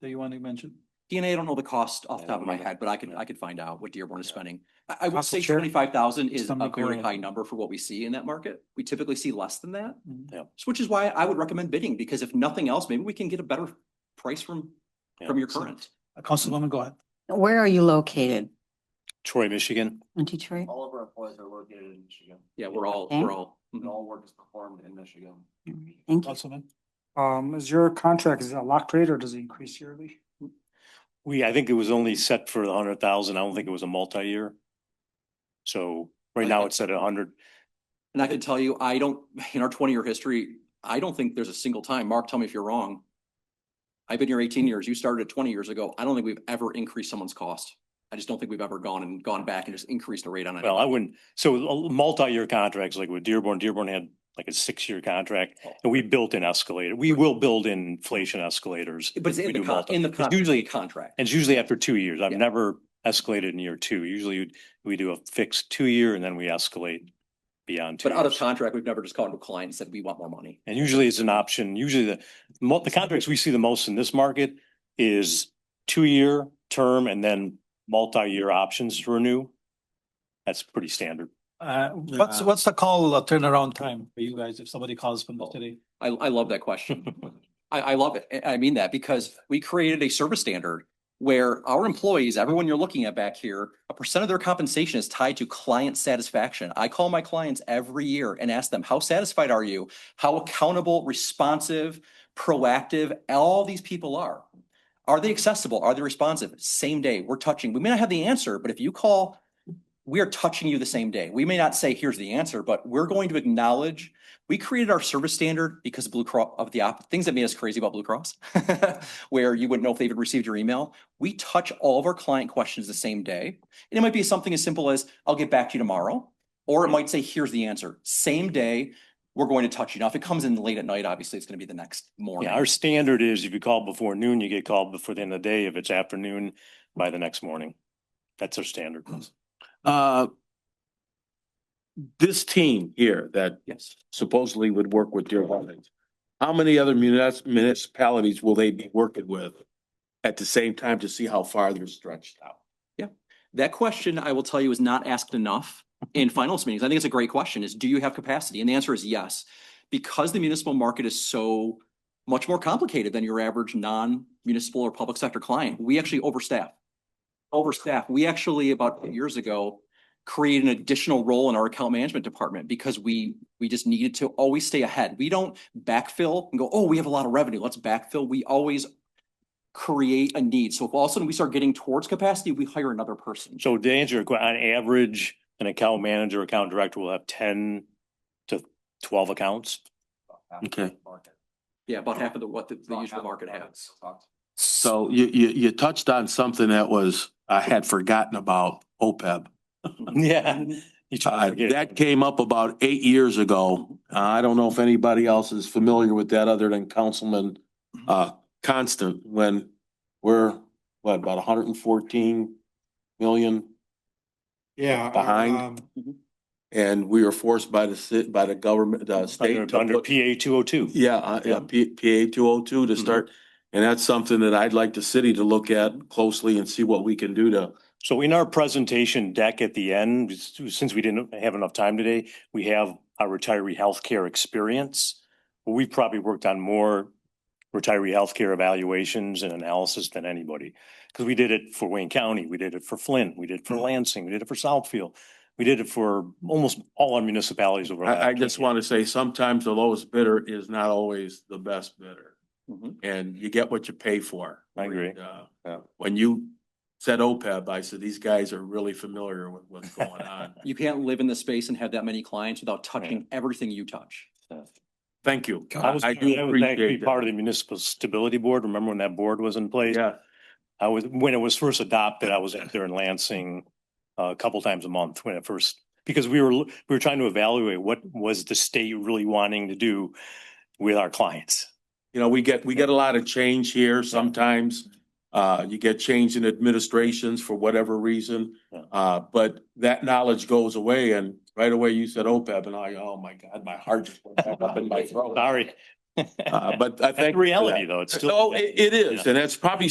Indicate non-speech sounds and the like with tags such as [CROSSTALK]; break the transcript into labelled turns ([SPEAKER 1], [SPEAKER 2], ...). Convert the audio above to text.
[SPEAKER 1] that you want to mention? DNA, I don't know the cost off the
[SPEAKER 2] I
[SPEAKER 1] top
[SPEAKER 2] don't
[SPEAKER 1] of my
[SPEAKER 2] remember.
[SPEAKER 1] head, but I can, I could find out what Dearborn is
[SPEAKER 2] Yeah.
[SPEAKER 1] spending. I, I would
[SPEAKER 3] Council
[SPEAKER 1] say
[SPEAKER 3] Chair?
[SPEAKER 1] twenty-five thousand is a
[SPEAKER 3] Something
[SPEAKER 1] very
[SPEAKER 3] clear.
[SPEAKER 1] high number for what we see in that market. We typically see less than that.
[SPEAKER 3] Mhm.
[SPEAKER 2] Yeah.
[SPEAKER 1] So Which is why I would recommend bidding, because if nothing else, maybe we can get a better price from,
[SPEAKER 2] Yeah.
[SPEAKER 1] from your current.
[SPEAKER 3] Uh, Councilwoman, go ahead.
[SPEAKER 4] Where are you located?
[SPEAKER 2] Troy, Michigan.
[SPEAKER 4] In Detroit?
[SPEAKER 5] All of our employees are located in Michigan.
[SPEAKER 1] Yeah, we're all,
[SPEAKER 4] Okay.
[SPEAKER 1] we're all.
[SPEAKER 5] And
[SPEAKER 1] mhm.
[SPEAKER 5] all work is performed in Michigan.
[SPEAKER 4] Thank you.
[SPEAKER 3] Councilman. Um, is your contract, is it a locked rate or does it increase yearly?
[SPEAKER 2] We, I think it was only set for a hundred thousand. I don't think it was a multi-year. So right now it's at a hundred.
[SPEAKER 1] And I can tell you, I don't, in our twenty-year history, I don't think there's a single time, Mark, tell me if you're wrong. I've been here eighteen years, you started twenty years ago, I don't think we've ever increased someone's cost. I just don't think we've ever gone and gone back and just increased the rate on it.
[SPEAKER 2] Well, I wouldn't, so a multi-year contracts like with Dearborn, Dearborn had like a six-year contract and we built in escalator. We will build in inflation escalators.
[SPEAKER 1] But it's
[SPEAKER 2] if
[SPEAKER 1] in
[SPEAKER 2] we
[SPEAKER 1] the,
[SPEAKER 2] do
[SPEAKER 1] con-
[SPEAKER 2] multi-
[SPEAKER 1] in the,
[SPEAKER 2] It's
[SPEAKER 1] con-
[SPEAKER 2] Usually, and
[SPEAKER 1] contract.
[SPEAKER 2] it's usually after two years. I've
[SPEAKER 1] Yeah.
[SPEAKER 2] never escalated in year two. Usually you'd- we do a fixed two-year and then we escalate beyond two
[SPEAKER 1] But out of
[SPEAKER 2] years.
[SPEAKER 1] contract, we've never just called a client and said, we want more money.
[SPEAKER 2] And usually it's an option. Usually the, mo- the contracts we see the most in this market is two-year term and then multi-year options to renew. That's pretty standard.
[SPEAKER 3] Uh, what's,
[SPEAKER 5] Yeah.
[SPEAKER 3] what's the call uh, turnaround time for you guys if somebody calls from
[SPEAKER 1] Oh.
[SPEAKER 3] the city?
[SPEAKER 1] I, I love that question. I, I love it. I I mean that because we created a service standard where our employees, everyone you're looking at back here, a percent of their compensation is tied to client satisfaction. I call my clients every year and ask them, how satisfied are you? How accountable, responsive, proactive, all these people are. Are they accessible? Are they responsive? Same day, we're touching. We may not have the answer, but if you call, we are touching you the same day. We may not say, here's the answer, but we're going to acknowledge we created our service standard because of Blue Cross of the op- things that made us crazy about Blue Cross, [LAUGHS] where you wouldn't know if they even received your email. We touch all of our client questions the same day. And it might be something as simple as, I'll get back to you tomorrow. Or it might say, here's the answer. Same day, we're going to touch you. Now, if it comes in late at night, obviously it's going to be the next morning.
[SPEAKER 2] Yeah, our standard is if you call before noon, you get called before the end of the day. If it's afternoon, by the next morning. That's our standard.
[SPEAKER 6] Hmm. Uh, This team here that
[SPEAKER 1] yes.
[SPEAKER 6] supposedly would work with Dearborn Heights, how many other munis- municipalities will they be working with at the same time to see how far they're stretched out?
[SPEAKER 1] That question, I will tell you, is not asked enough in finals meetings. I think it's a great question is, do you have capacity? And the answer is yes. Because the municipal market is so much more complicated than your average non-municipal or public sector client, we actually overstaff. Overstaff. We actually, about eight years ago, created an additional role in our account management department because we, we just needed to always stay ahead. We don't backfill and go, oh, we have a lot of revenue. Let's backfill. We always create a need. So if all of a sudden we start getting towards capacity, we hire another person.
[SPEAKER 2] So to answer your question, on average, an account manager, account director will have ten to twelve accounts.
[SPEAKER 6] Okay.
[SPEAKER 1] Yeah, about half of the, what the, the usual market has.
[SPEAKER 6] So you, you, you touched on something that was, I had forgotten about OPEB.
[SPEAKER 2] [LAUGHS] Yeah. You try
[SPEAKER 6] Hmm. Uh,
[SPEAKER 2] to forget.
[SPEAKER 6] that came up about eight years ago. Uh, I don't know if anybody else is familiar with that other than Councilman
[SPEAKER 2] Mm-hmm.
[SPEAKER 6] uh Constant, when we're, what, about hundred and fourteen million
[SPEAKER 7] Yeah. uh,
[SPEAKER 6] Behind.
[SPEAKER 7] um,
[SPEAKER 6] and we were forced by the city, by the government, the uh, state.
[SPEAKER 2] Under
[SPEAKER 6] to
[SPEAKER 2] under
[SPEAKER 6] put-
[SPEAKER 2] PA two oh two.
[SPEAKER 6] Yeah, uh, yeah, P- PA two oh two
[SPEAKER 2] Mm-hmm.
[SPEAKER 6] to
[SPEAKER 1] Mhm.
[SPEAKER 6] start. And that's something that I'd like the city to look at closely and see what we can do to.
[SPEAKER 2] So in our presentation deck at the end, since we didn't have enough time today, we have our retiree healthcare experience. We've probably worked on more retiree healthcare evaluations and analysis than anybody. Because we did it for Wayne County, we did it for Flint, we did
[SPEAKER 6] Mm-hmm.
[SPEAKER 2] it for Lansing, we did it for Southfield. We did it for almost all our municipalities over. the
[SPEAKER 6] I, I
[SPEAKER 2] last
[SPEAKER 6] just
[SPEAKER 2] 10 years.
[SPEAKER 6] want to say sometimes the lowest bidder is not always the best bidder.
[SPEAKER 1] Mhm.
[SPEAKER 6] And you get what you pay for.
[SPEAKER 2] Mm-hmm. I agree.
[SPEAKER 6] And, uh,
[SPEAKER 2] Yeah.
[SPEAKER 6] When you said OPEB, I said, these guys are really familiar with what's
[SPEAKER 2] [LAUGHS]
[SPEAKER 6] going on.
[SPEAKER 1] You can't live in the space and have that many clients without touching everything you touch.
[SPEAKER 6] Thank you.
[SPEAKER 2] I was,
[SPEAKER 6] I
[SPEAKER 2] I
[SPEAKER 6] do
[SPEAKER 2] was actually
[SPEAKER 6] appreciate
[SPEAKER 2] part of
[SPEAKER 6] that.
[SPEAKER 2] the municipal stability board. Remember when that board was in place?
[SPEAKER 6] Yeah,
[SPEAKER 2] I was, when it was first adopted, I was out there in Lansing uh, a couple times a month when it first, because we were, we were trying to evaluate what was the state really wanting to do with our clients.
[SPEAKER 6] you know, we get, we get a lot of change here sometimes. Uh, you get change in administrations for whatever reason.
[SPEAKER 2] Yeah.
[SPEAKER 6] Uh, but that knowledge goes away and right away you said OPEB and I, oh my God, my heart just went back up in
[SPEAKER 2] [LAUGHS]
[SPEAKER 6] my throat.
[SPEAKER 2] Sorry.
[SPEAKER 6] Uh, but I
[SPEAKER 2] That's
[SPEAKER 6] think.
[SPEAKER 2] reality, though. [LAUGHS] It's still.
[SPEAKER 6] No, it, it is.
[SPEAKER 2] Yeah.
[SPEAKER 6] And that's probably